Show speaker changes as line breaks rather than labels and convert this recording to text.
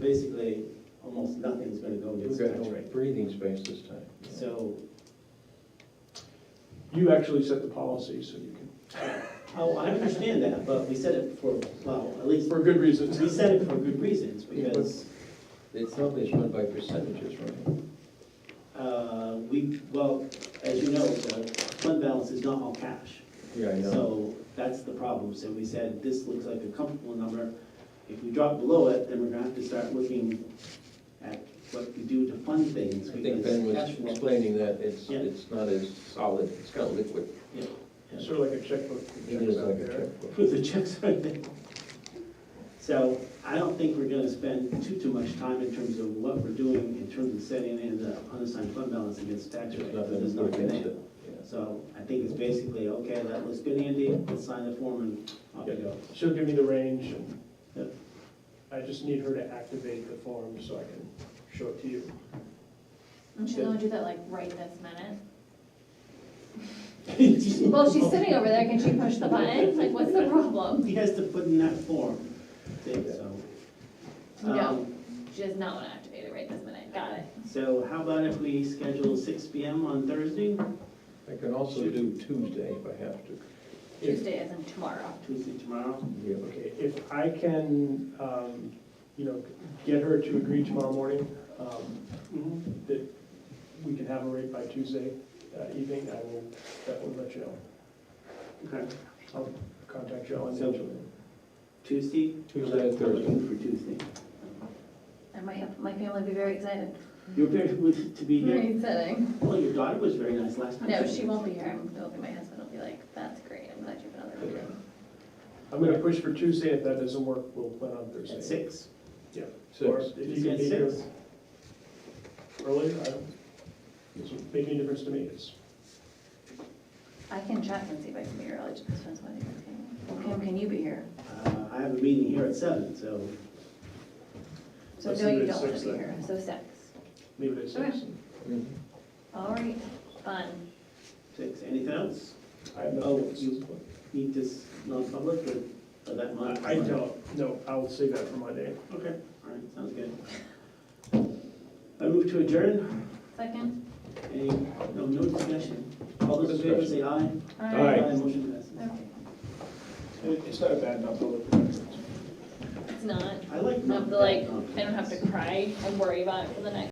basically, almost nothing's gonna go
We've
against the
got
tax
no
rate.
breathing space this time.
So,
You actually set the policy, so you can,
oh, I understand that, but we said it for, well, at least,
for good reasons.
we said it for good reasons,
Yeah, but-
because,
It's always run by percentages, right?
uh, we, well, as you know, the fund balance is not all cash.
Yeah, I know.
So that's the problem. So we said, this looks like a comfortable number. If we drop below it, then we're gonna have to start looking at what we do to fund things.
I think
because
Ben was
cash flow-
explaining that it's,
Yeah.
it's not as solid, it's kind of liquid.
Yeah, yeah.
Sort of like a checkbook.
It is like a checkbook.
With the checks right there. So I don't think we're gonna spend too, too much time in terms of what we're doing in terms of setting in the unassigned fund balance against tax rate.
There's
because
nothing
it's not gonna
against
happen.
it. Yeah.
So I think it's basically, okay, that looks good, Andy, let's sign the form and off we go.
She'll give me the range,
Yeah.
and I just need her to activate the form so I can show it to you.
And she's
Good.
gonna do that like right this minute. Well, she's sitting over there, can she push the button? Like, what's the problem?
He has to put in that form, thing, so.
No,
Um,
she does not wanna activate it right this minute, got it.
So how about if we schedule six P M on Thursday,
I can also do Tuesday if I have to.
If-
Tuesday isn't tomorrow.
Tuesday tomorrow?
Yeah, but
Okay, if I can, um, you know, get her to agree tomorrow morning, um,
Mm-hmm.
that we can have a rate by Tuesday uh, evening, I will, that will let you know.
Okay,
I'll contact Joe and
So-
Angela.
Tuesday?
Tuesday or
I'm looking
Thursday.
For Tuesday.
And my, my family would be very excited.
You're very good to be here.
Very exciting.
Well, your daughter was very nice last time.
No, she won't be here, it'll be my husband, will be like, that's great, I'm glad you have another meeting.
I'm gonna push for Tuesday, if that doesn't work, we'll plan on Thursday.
At six.
Or
Six.
if you
Tuesday
can
at
be here
six.
earlier, I don't, it's making a difference to me, it's,
I can check and see if I can be here early, just depends when you guys can. Kim, can you be here?
Uh, I have a meeting here at seven, so
So
Let's
no,
do it
you
at
don't wanna
six
be
then.
here, so six.
leave it at six.
Mhm.
All right, fun.
six. Anything else?
I have
Oh,
nothing.
you- Need this non-public or or that month?
I I don't, no, I will save that for Monday.
Okay, all right, sounds good. I move to adjourn.
Second?
Any, no, no discussion. All those in favor say aye.
All right.
Motion passes.
Okay.
It- It's not a bad non-public.
It's not.
I like.
Not the like, I don't have to cry and worry about it for the next